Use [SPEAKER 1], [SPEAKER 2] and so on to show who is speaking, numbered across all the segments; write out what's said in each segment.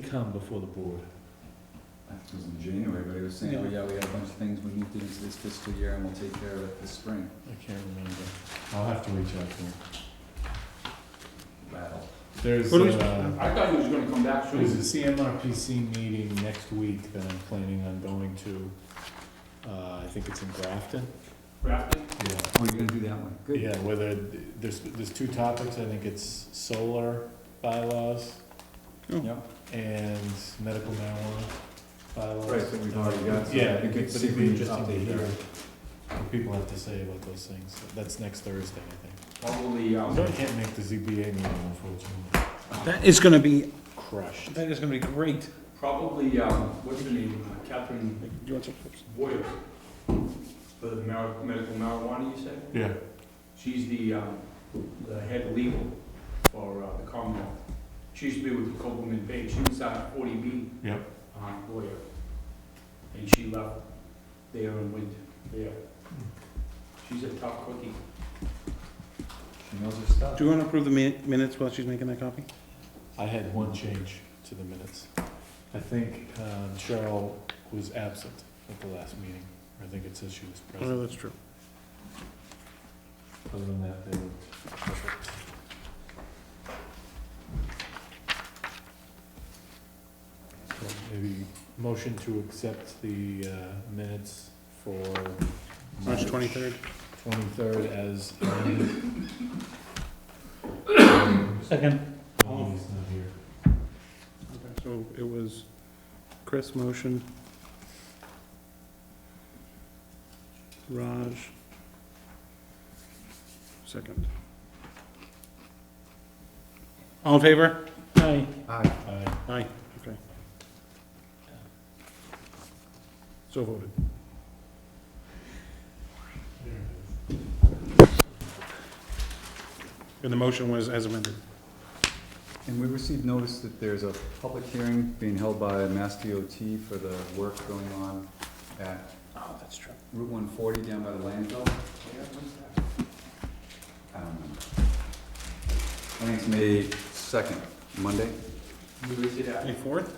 [SPEAKER 1] come before the board?
[SPEAKER 2] I think it was in January, but he was saying, oh yeah, we got a bunch of things we need to do this- this fiscal year and we'll take care of it this spring.
[SPEAKER 1] I can't remember. I'll have to reach out to him.
[SPEAKER 2] Battle.
[SPEAKER 1] There's,
[SPEAKER 3] What do we-
[SPEAKER 1] uh,
[SPEAKER 2] I thought he was gonna come back
[SPEAKER 1] There's a CMRPC meeting next week that I'm planning on going to. Uh, I think it's in Grafton.
[SPEAKER 3] Grafton?
[SPEAKER 1] Yeah.
[SPEAKER 2] Oh, you're gonna do that one, good.
[SPEAKER 1] Yeah, whether, there's, there's two topics, I think it's solar bylaws Oh.
[SPEAKER 2] Yep.
[SPEAKER 1] and medical marijuana bylaws.
[SPEAKER 2] Right, so we've already got some.
[SPEAKER 1] Yeah,
[SPEAKER 2] We
[SPEAKER 1] but
[SPEAKER 2] could see
[SPEAKER 1] it'd
[SPEAKER 2] if we
[SPEAKER 1] be
[SPEAKER 2] can
[SPEAKER 1] interesting to
[SPEAKER 2] update
[SPEAKER 1] hear
[SPEAKER 2] that.
[SPEAKER 1] what people have to say about those things. That's next Thursday, I think.
[SPEAKER 2] Probably, um,
[SPEAKER 1] I can't make the ZBA meeting, unfortunately.
[SPEAKER 4] That is gonna be,
[SPEAKER 1] Crushed.
[SPEAKER 4] that is gonna be great.
[SPEAKER 3] Probably, um, what's her name, Uh, Catherine
[SPEAKER 4] You want some chips?
[SPEAKER 3] Boyer, for the mar- medical marijuana, you said?
[SPEAKER 1] Yeah.
[SPEAKER 3] She's the, um, the head legal for uh, the Commonwealth. She used to be with the Copeland Page, she was our forty B.
[SPEAKER 1] Yep.
[SPEAKER 3] Uh, lawyer. And she left there and went there. She's a tough cookie.
[SPEAKER 2] she knows her stuff.
[SPEAKER 4] Do you wanna approve the min- minutes while she's making that copy?
[SPEAKER 1] I had one change to the minutes. I think um, Cheryl was absent at the last meeting. I think it says she was present.
[SPEAKER 4] Oh, that's true.
[SPEAKER 1] Other than that, they were perfect. So Maybe motion to accept the uh, minutes for.
[SPEAKER 4] March twenty-third.
[SPEAKER 1] Twenty-third as.
[SPEAKER 4] Second.
[SPEAKER 1] Oh, he's not here.
[SPEAKER 4] So it was Chris motion. Raj. Second. All in favor? Aye.
[SPEAKER 2] Aye.
[SPEAKER 1] Aye.
[SPEAKER 4] Aye, okay. So voted.
[SPEAKER 1] There it is.
[SPEAKER 4] And the motion was as amended.
[SPEAKER 2] And we received notice that there's a public hearing being held by Mass DOT for the work going on at
[SPEAKER 4] Oh, that's true.
[SPEAKER 2] Route one forty down by the landfill. Um, I think it's May second, Monday,
[SPEAKER 3] You raised it
[SPEAKER 4] May
[SPEAKER 3] at
[SPEAKER 4] fourth?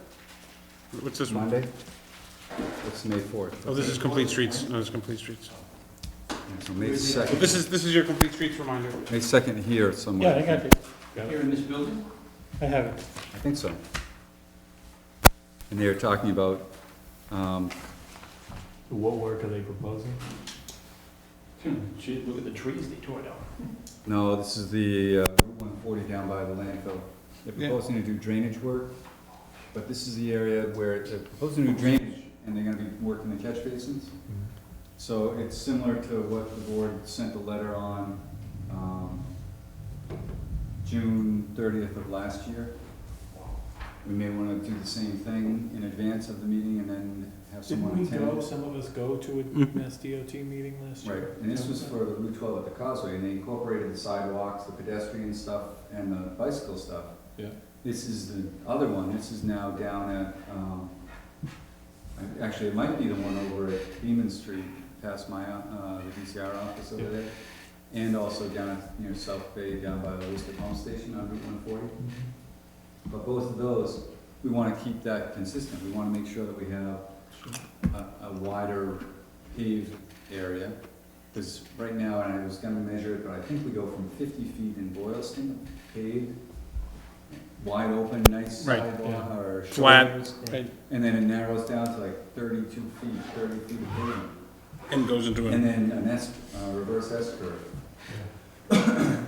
[SPEAKER 4] What's this one?
[SPEAKER 2] Monday? It's May fourth.
[SPEAKER 4] Oh, this is complete streets, no, it's complete streets.
[SPEAKER 2] So May
[SPEAKER 4] But
[SPEAKER 2] second,
[SPEAKER 4] this is, this is your complete streets reminder.
[SPEAKER 2] May second here somewhere.
[SPEAKER 4] it,
[SPEAKER 3] here in this building?
[SPEAKER 4] I have it.
[SPEAKER 2] I think so. And they were talking about, um,
[SPEAKER 1] What work are they proposing?
[SPEAKER 3] Hmm, Shit, look at the trees they tore down.
[SPEAKER 2] no, this is the uh, Route one forty down by the landfill. They're
[SPEAKER 4] Yeah.
[SPEAKER 2] proposing to do drainage work, but this is the area where they're proposing to do drainage, and they're gonna be working the catch basins. So it's similar to what the board sent the letter on, um, June thirtieth of last year. We may wanna do the same thing in advance of the meeting and then have someone
[SPEAKER 1] Didn't we
[SPEAKER 2] attend.
[SPEAKER 1] go, some of us go to
[SPEAKER 4] Mhm.
[SPEAKER 1] a Mass DOT meeting last
[SPEAKER 2] Right,
[SPEAKER 1] year?
[SPEAKER 2] and this was for the Route twelve at the Causeway, and they incorporated the sidewalks, the pedestrian stuff, and the bicycle stuff.
[SPEAKER 1] Yeah.
[SPEAKER 2] This is the other one, this is now down at, um, actually, it might be the one over at Beaman Street, past my, uh, the DCR office over
[SPEAKER 1] Yeah.
[SPEAKER 2] there. And also down at, near South Bay, down by the Worcester Pump Station on Route one forty.
[SPEAKER 1] Mm-hmm.
[SPEAKER 2] But both of those, we wanna keep that consistent, we wanna make sure that we have a, a wider paved area. Cause right now, and I was gonna measure it, but I think we go from fifty feet in Boylston, paved, wide open, nice
[SPEAKER 4] Right,
[SPEAKER 2] sidewalk
[SPEAKER 1] yeah.
[SPEAKER 2] or
[SPEAKER 4] Flat.
[SPEAKER 2] shoulders.
[SPEAKER 4] Right.
[SPEAKER 2] And then it narrows down to like thirty-two feet, thirty feet of pavement.
[SPEAKER 4] And goes into
[SPEAKER 2] And
[SPEAKER 4] it.
[SPEAKER 2] then an S, uh, reverse S curve.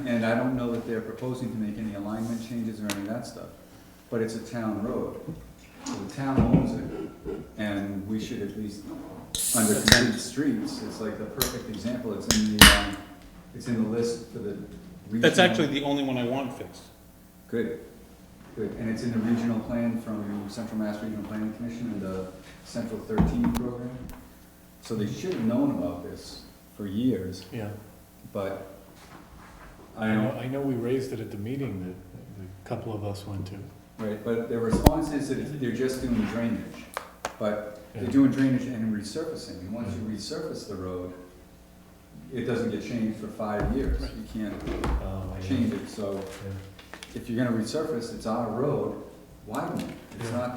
[SPEAKER 2] And I don't know that they're proposing to make any alignment changes or any of that stuff, but it's a town road. So The town owns it, and we should at least, under complete streets, it's like the perfect example, it's in the, um, it's in the list for the regional.
[SPEAKER 4] That's actually the only one I want fixed.
[SPEAKER 2] Good, good, and it's in the regional plan from Central Mass Regional Planning Commission and the Central Thirteen program. So they should have known about this for years,
[SPEAKER 1] Yeah,
[SPEAKER 2] but I
[SPEAKER 1] I know,
[SPEAKER 2] don't,
[SPEAKER 1] I know we raised it at the meeting that a couple of us went to.
[SPEAKER 2] right, but their response is that they're just doing drainage. But they're
[SPEAKER 1] Yeah.
[SPEAKER 2] doing drainage and resurfacing, and once you resurface the road, it doesn't get changed for five years. You can't
[SPEAKER 1] Um, I know.
[SPEAKER 2] change it, so
[SPEAKER 1] Yeah.
[SPEAKER 2] if you're gonna resurface, it's on a road, widen it. It's
[SPEAKER 1] Yeah.
[SPEAKER 2] not